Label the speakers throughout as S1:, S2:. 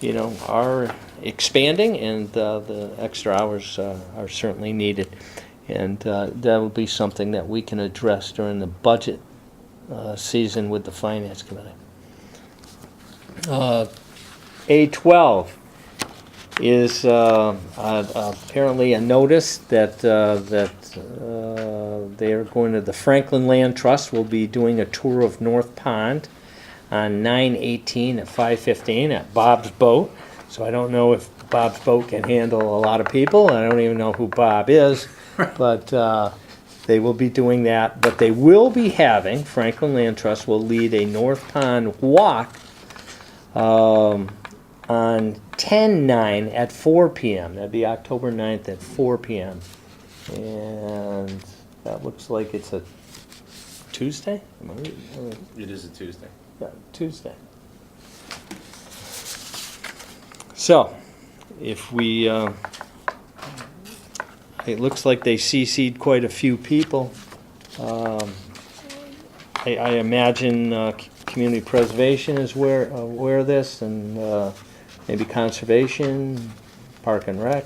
S1: you know, are expanding, and uh, the extra hours uh, are certainly needed. And uh, that will be something that we can address during the budget uh, season with the Finance Committee. Uh, A12 is uh, uh, apparently a notice that, uh, that uh, they are going to, the Franklin Land Trust will be doing a tour of North Pond on 9/18 at 5:15 at Bob's Boat. So I don't know if Bob's Boat can handle a lot of people. I don't even know who Bob is. But uh, they will be doing that. But they will be having, Franklin Land Trust will lead a North Pond Walk um, on 10/9 at 4 PM. That'd be October 9th at 4 PM. And that looks like it's a Tuesday? Am I right? Am I right?
S2: It is a Tuesday.
S1: Yeah, Tuesday. So, if we, uh, it looks like they CC'd quite a few people. Um, I, I imagine uh, c- community preservation is where, aware of this, and uh, maybe conservation, park and rec,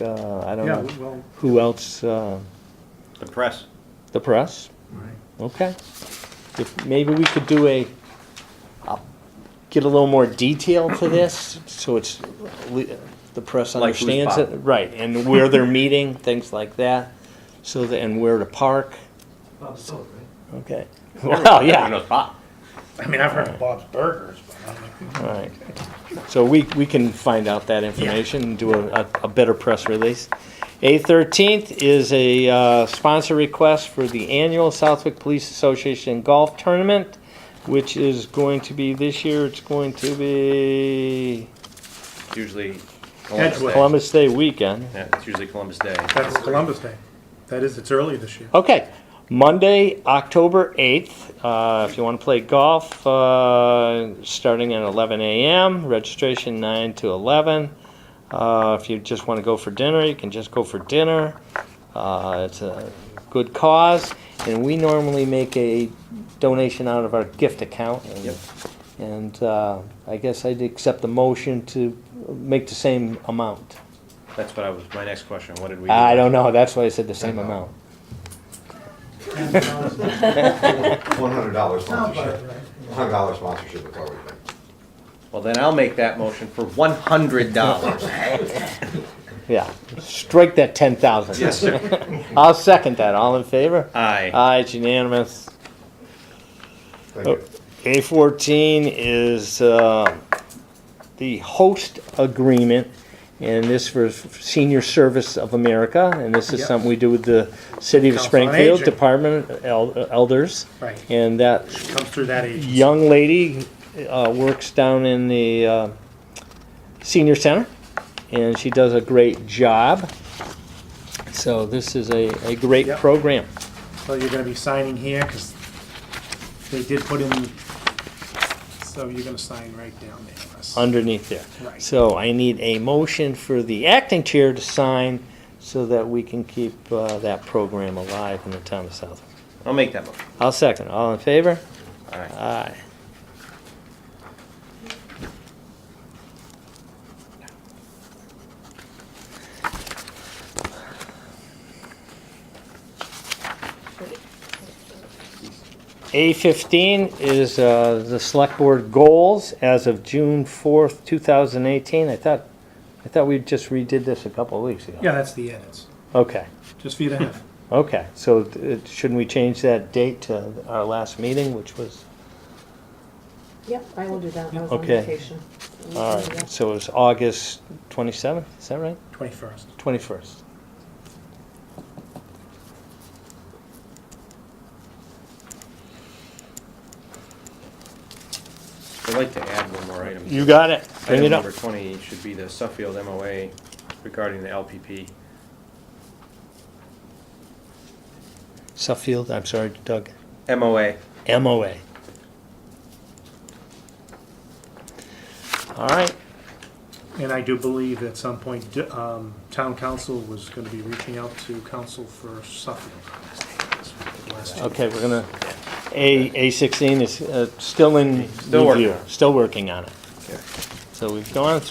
S1: uh, I don't
S3: Yeah,
S1: know.
S3: well,
S1: Who else, uh,
S2: The press.
S1: the press?
S3: right.
S1: Okay. If, maybe we could do a, I'll get a little more detail to this, so it's, le- the press
S2: Like who's
S1: understands it.
S2: buying.
S1: Right, and where they're meeting, things like that, so, the- and where to park,
S3: Bob's Soul, right?
S1: okay. Well,
S2: Everyone
S1: yeah,
S2: knows Bob.
S3: I mean, I've heard of Bob's Burgers, but I don't know.
S1: all right. So we, we can find out that information and do a, a- a better press release. A thirteenth is a uh, sponsor request for the annual Southwick Police Association Golf Tournament, which is going to be this year, it's going to be
S2: Usually Columbus
S3: Edgewood.
S2: Day.
S1: Columbus Day weekend.
S2: Yeah, it's usually Columbus Day.
S3: That's Columbus Day. That is, it's early this year.
S1: Okay, Monday, October 8th, uh, if you want to play golf, uh, starting at 11 a.m., registration 9 to 11. Uh, If you just want to go for dinner, you can just go for dinner. Uh, It's a good cause, and we normally make a donation out of our gift account. and-
S2: Yep.
S1: And uh, I guess I'd accept the motion to make the same amount.
S2: That's what I was, my next question, what did we? do?
S1: I don't know, that's why I said the same amount.
S4: One hundred dollar sponsorship. One hundred dollar sponsorship is already been.
S2: Well, then I'll make that motion for one hundred dollars.
S1: Yeah, strike that ten thousand.
S2: Yes, sir.
S1: I'll second that. All in favor?
S2: Aye.
S1: Aye, it's unanimous.
S4: Thank you.
S1: A fourteen is, uh, the host agreement, and this for Senior Service of America, and this is
S3: Yep.
S1: something we do with the City of
S3: Council on
S1: Springfield
S3: Aging.
S1: Department of El- Elders.
S3: Right.
S1: And that
S3: Comes through that age.
S1: young lady uh, works down in the uh, senior center, and she does a great job. So this is a, a great
S3: Yep.
S1: program.
S3: So you're gonna be signing here, because they did put in, so you're gonna sign right down there. Les.
S1: underneath there.
S3: Right.
S1: So I need a motion for the acting chair to sign so that we can keep uh, that program alive in the town of Southwick.
S2: I'll make that motion.
S1: I'll second. All in favor?
S2: Aye.
S1: Aye. A fifteen is uh, the select board goals as of June fourth, two thousand eighteen. I thought, I thought we just redid this a couple of weeks ago.
S3: Yeah, that's the edits,
S1: Okay,
S3: just for you to have.
S1: okay. So uh, shouldn't we change that date to our last meeting, which was?
S5: Yep, I will do that. I was on
S1: Okay.
S5: vacation. I will
S1: All
S5: do
S1: right,
S5: that.
S1: so it's August 27th, is that right?
S3: Twenty-first.
S1: 21st.
S2: I'd like to add one more item.
S1: You got it. Bring it
S2: Item
S1: up.
S2: number twenty should be the Suffield MOA regarding the LPP.
S1: Suffield, I'm sorry, Doug.
S2: MOA.
S1: MOA. All right,
S3: And I do believe at some point, d- um, town council was gonna be reaching out to council for Suffield. Last year.
S1: okay, we're gonna, A, A16 is uh, still in
S2: Still working.
S1: review, still working on it. So we've gone